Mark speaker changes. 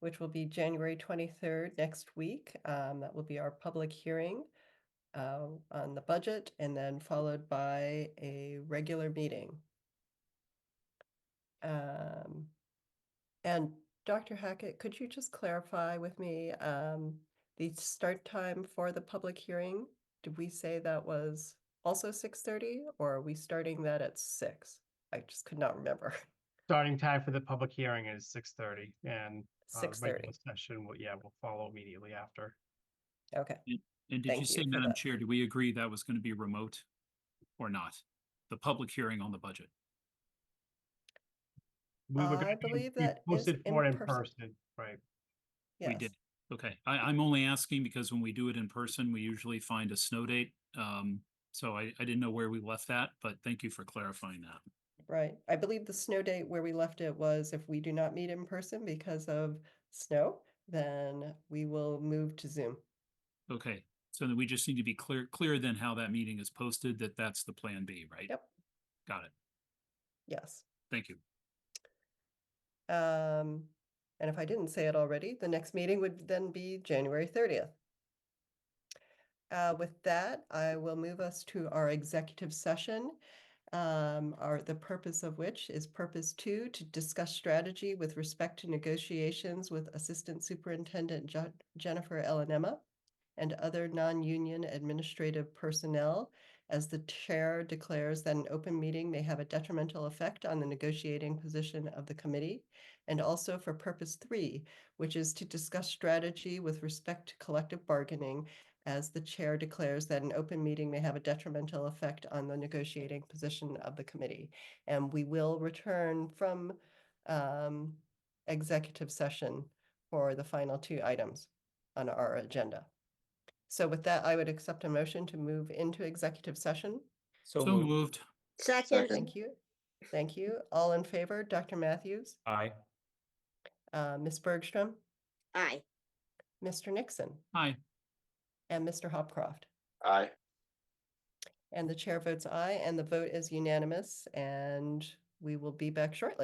Speaker 1: which will be January twenty-third next week. Um, that will be our public hearing uh, on the budget and then followed by a regular meeting. Um, and Dr. Hackett, could you just clarify with me, um, the start time for the public hearing? Did we say that was also six thirty or are we starting that at six? I just could not remember.
Speaker 2: Starting time for the public hearing is six thirty and. uh,
Speaker 1: Six thirty,
Speaker 2: regular Session, will yeah, will follow immediately after.
Speaker 1: okay.
Speaker 3: And did you
Speaker 1: Thank you
Speaker 3: say,
Speaker 1: for
Speaker 3: Madam
Speaker 1: that.
Speaker 3: Chair, do we agree that was going to be remote or not? The public hearing on the budget?
Speaker 2: We were
Speaker 1: Uh, I
Speaker 2: gonna- we-
Speaker 1: believe
Speaker 2: we
Speaker 1: that is
Speaker 2: Posted
Speaker 1: in
Speaker 2: for it in
Speaker 1: person.
Speaker 2: person, right?
Speaker 3: We
Speaker 1: Yes.
Speaker 3: did. Okay, I, I'm only asking because when we do it in person, we usually find a snow date. Um, so I, I didn't know where we left that, but thank you for clarifying that.
Speaker 1: Right. I believe the snow date where we left it was if we do not meet in person because of snow, then we will move to Zoom.
Speaker 3: Okay, so then we just need to be clear, clear then how that meeting is posted, that that's the plan B, right?
Speaker 1: Yep.
Speaker 3: Got it.
Speaker 1: Yes.
Speaker 3: Thank you.
Speaker 1: Um, and if I didn't say it already, the next meeting would then be January thirtieth. Uh, with that, I will move us to our executive session. Um, our, the purpose of which is purpose two, to discuss strategy with respect to negotiations with Assistant Superintendent Jo- Jennifer Ellenema and other non-union administrative personnel as the chair declares that an open meeting may have a detrimental effect on the negotiating position of the committee, and also for purpose three, which is to discuss strategy with respect to collective bargaining as the chair declares that an open meeting may have a detrimental effect on the negotiating position of the committee. And we will return from um, executive session for the final two items on our agenda. So with that, I would accept a motion to move into executive session.
Speaker 3: So moved.
Speaker 4: Second.
Speaker 1: Thank you. Thank you. All in favor, Dr. Matthews,
Speaker 5: Aye.
Speaker 1: uh, Ms. Bergstrom,
Speaker 4: Aye.
Speaker 1: Mr. Nixon,
Speaker 3: Hi,
Speaker 1: and Mr. Hopcroft.
Speaker 6: Aye.
Speaker 1: And the chair votes aye, and the vote is unanimous, and we will be back shortly.